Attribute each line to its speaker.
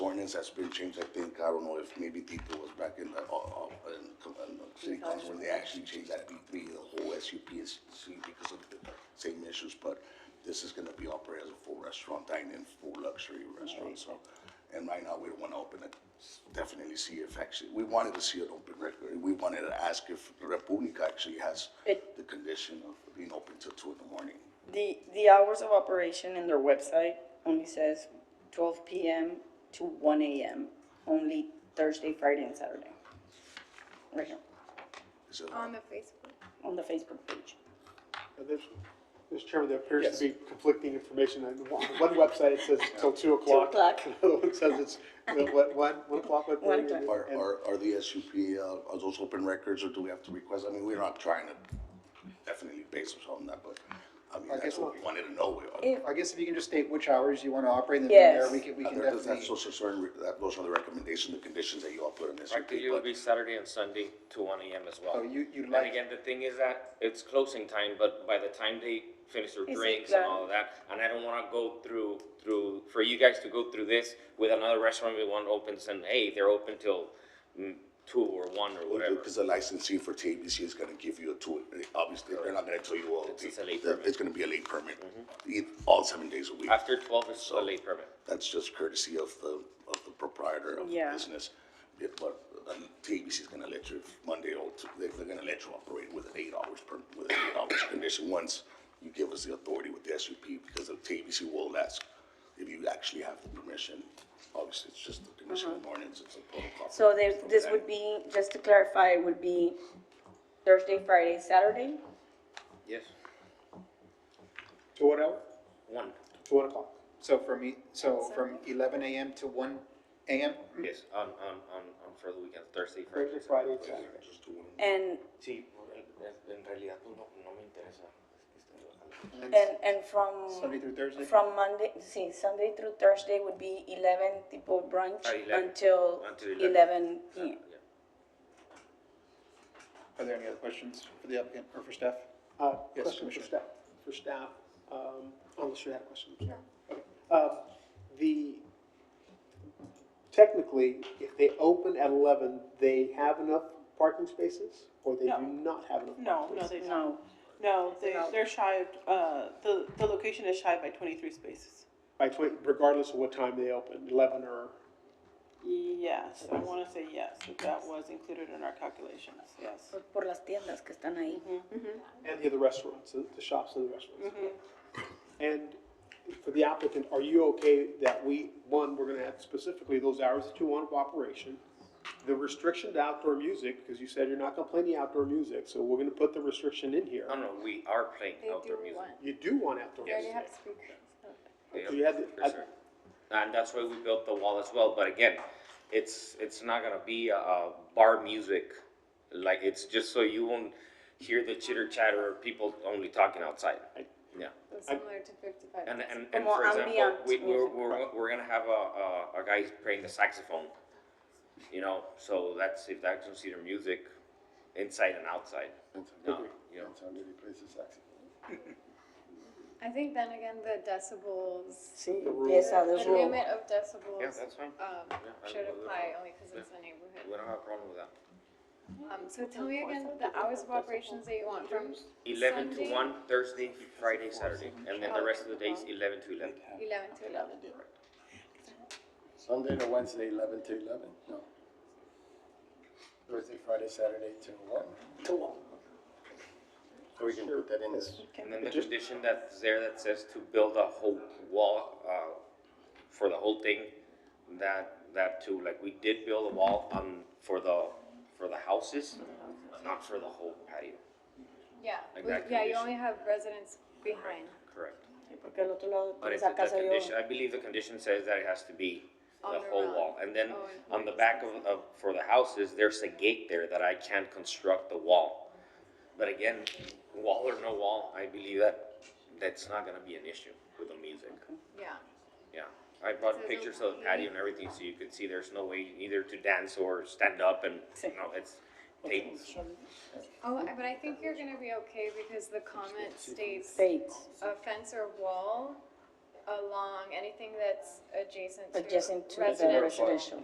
Speaker 1: things that's been changed, I think, I don't know if maybe D three was back in, the- uh, uh, in, co- in the city council, when they actually changed that D three, the whole SUP is, see, because of the same issues, but this is gonna be operated as a full restaurant, dine-in, full luxury restaurant, so, and right now, we don't wanna open it, definitely see if actually, we wanted to see it open regularly, we wanted to ask if República actually has
Speaker 2: It-
Speaker 1: the condition of being open till two in the morning.
Speaker 2: The, the hours of operation in their website only says twelve PM to one AM, only Thursday, Friday, and Saturday. Right here,
Speaker 1: Is it-
Speaker 3: On the Facebook.
Speaker 2: on the Facebook page.
Speaker 4: Uh, There's, Mr. Chairman, there appears to be conflicting information. On one one website, it says till two o'clock.
Speaker 2: o'clock.
Speaker 4: Another one says it's, uh, what, one, one o'clock, what?
Speaker 2: One o'clock.
Speaker 1: Are, are, are the SUP, uh, are those open records or do we have to request? I mean, we're not trying to definitely base ourselves on that, but I mean, that's
Speaker 5: guess
Speaker 1: what we wanted to know.
Speaker 2: If-
Speaker 5: I guess if you can just state which hours you want to operate, and then
Speaker 2: Yes.
Speaker 5: there, we can, we
Speaker 1: Uh,
Speaker 5: can
Speaker 1: there- That's
Speaker 5: definitely.
Speaker 1: those are certain, re- that- those are the recommendations, the conditions that you all put in SUP.
Speaker 6: Practically, it would be Saturday and Sunday to one AM as well.
Speaker 5: So you, you
Speaker 6: And
Speaker 5: like,
Speaker 6: again, the thing is that it's closing time, but by the time they finish their
Speaker 2: Is it
Speaker 6: drinks and
Speaker 2: done?
Speaker 6: all of that, and I don't wanna go through, through, for you guys to go through this with another restaurant, we want opens and, hey, they're open till mm, two or one or whatever.
Speaker 1: Because the licensee for TABC is gonna give you a two, obviously, they're not gonna tell you all.
Speaker 6: It's-
Speaker 1: the-
Speaker 6: it's a late
Speaker 1: the-
Speaker 6: permit. Mm-hmm.
Speaker 1: It's gonna be a late permit, e- all seven days a week.
Speaker 6: After twelve is a late permit.
Speaker 1: That's just courtesy of the, of the proprietor of the
Speaker 2: Yeah.
Speaker 1: business. If- But um, TABC is gonna let you, if Monday, or Tu- they- they're gonna let you operate with an eight hours per, with an eight hours condition. Once you give us the authority with the SUP, because the TABC will ask if you actually have the permission. Obviously, it's just the condition of ordinance, it's a protocol.
Speaker 2: Uh-huh. So there's,
Speaker 1: from
Speaker 2: this
Speaker 1: that.
Speaker 2: would be, just to clarify, it would be Thursday, Friday, Saturday,
Speaker 6: Yes.
Speaker 5: to what hour?
Speaker 6: One,
Speaker 4: To one o'clock.
Speaker 5: So from, e- so from eleven AM to one AM?
Speaker 6: yes, on, on, on, on for the weekend, Thursday, Friday.
Speaker 4: Thursday, Friday, Saturday.
Speaker 1: Just the one.
Speaker 2: and,
Speaker 6: Sí, en realidad no, no me interesa.
Speaker 5: And
Speaker 2: and, and from.
Speaker 5: Sunday through Thursday?
Speaker 2: From Monday, see, Sunday through Thursday would be eleven, tipo brunch,
Speaker 6: Ah, 11,
Speaker 2: until
Speaker 6: until Ah. 11.
Speaker 2: eleven PM.
Speaker 5: Are there any other questions for the applicant or for staff?
Speaker 4: Uh,
Speaker 5: Yes,
Speaker 4: Question for
Speaker 5: Commissioner.
Speaker 4: staff, for staff, um, unless you had a question. Okay. Uh, The, technically, if they open at 11, they have enough parking spaces? Or they
Speaker 7: No.
Speaker 4: do not have enough?
Speaker 7: No, no, they don't.
Speaker 2: No,
Speaker 7: No, they, they're shy, of- uh, the, the location is shy by twenty-three spaces.
Speaker 4: By 20, regardless of what time they open, 11 or,
Speaker 7: Yes, I wanna say yes, that that was included in our calculations, yes.
Speaker 2: por- por las tiendas que están ahí.
Speaker 4: and the other restaurants, the the shops and the restaurants. And for the applicant, are you okay that we, one, we're gonna have specifically those hours that you want of operation? The restriction to outdoor music, because you said you're not gonna play any outdoor music, so we're gonna put the restriction in here.
Speaker 6: No, no, we are playing
Speaker 3: They do
Speaker 6: outdoor music.
Speaker 3: one.
Speaker 4: You do want outdoor
Speaker 3: They already
Speaker 4: music.
Speaker 3: have speakers.
Speaker 6: They
Speaker 4: So you had
Speaker 6: have- uh,
Speaker 4: the-
Speaker 6: for sure. And that's why we built the wall as well, but again, it's, it's not gonna be a, a bar music. Like, it's just so you won't hear the chitter chatter of people only talking outside. Yeah,
Speaker 3: It's Similar to fifty-five.
Speaker 6: and, and, and
Speaker 2: Como
Speaker 6: for example,
Speaker 2: ambient
Speaker 6: we, we're,
Speaker 2: music.
Speaker 6: we're, we're gonna have a, a, a guy playing the saxophone. You know, so that's, if that's considered music, inside and outside. No, you know.
Speaker 3: I think then again, the decibels,
Speaker 2: Sí, empieza
Speaker 3: the
Speaker 2: de nuevo.
Speaker 3: limit of decibels.
Speaker 6: Yeah, that's fine.
Speaker 3: Um,
Speaker 6: I
Speaker 3: should
Speaker 6: will-
Speaker 3: apply only because it's
Speaker 6: yeah.
Speaker 3: a
Speaker 6: We
Speaker 3: neighborhood.
Speaker 6: don't have a problem with that.
Speaker 3: Um, so tell me again the hours of operations that you want from
Speaker 6: Eleven to
Speaker 3: Sunday,
Speaker 6: one, Thursday, Friday, Saturday, and then the rest of the days, eleven to eleven.
Speaker 3: Eleven to eleven.
Speaker 8: Sunday to Wednesday, eleven to eleven, no. Thursday, Friday, Saturday to one.
Speaker 4: To one.
Speaker 8: So we can put that in this.
Speaker 6: And then the condition that's there that says to build a whole wall, uh, for the whole thing, that, that too, like, we did build a wall, um, for the, for the houses, not for the whole patio,
Speaker 3: Yeah,
Speaker 6: Like
Speaker 3: we-
Speaker 6: that
Speaker 3: yeah, you
Speaker 6: condition.
Speaker 3: only have residents behind
Speaker 6: correct?
Speaker 2: Porque al otro lado
Speaker 6: But
Speaker 2: tienes
Speaker 6: it's, the
Speaker 2: a casa de
Speaker 6: condition, I believe the condition says that it has to be
Speaker 3: On
Speaker 6: the
Speaker 3: the
Speaker 6: whole
Speaker 3: road.
Speaker 6: wall. And then
Speaker 3: Oh, and
Speaker 6: on the
Speaker 3: here.
Speaker 6: back of, of, for the houses, there's a gate there that I can't construct the wall. But again, wall or no wall, I believe that, that's not gonna be an issue with the music,
Speaker 3: yeah.
Speaker 6: yeah. I brought
Speaker 3: So
Speaker 6: pictures
Speaker 3: the-
Speaker 6: of the patio and everything, so you could see there's no way either to dance or stand up and, you know, it's tables.
Speaker 3: Oh, I- but I think you're gonna be okay because the comment states
Speaker 2: States.
Speaker 3: a fence or wall along anything that's adjacent to
Speaker 2: adjacent to the
Speaker 3: residential.
Speaker 2: residential.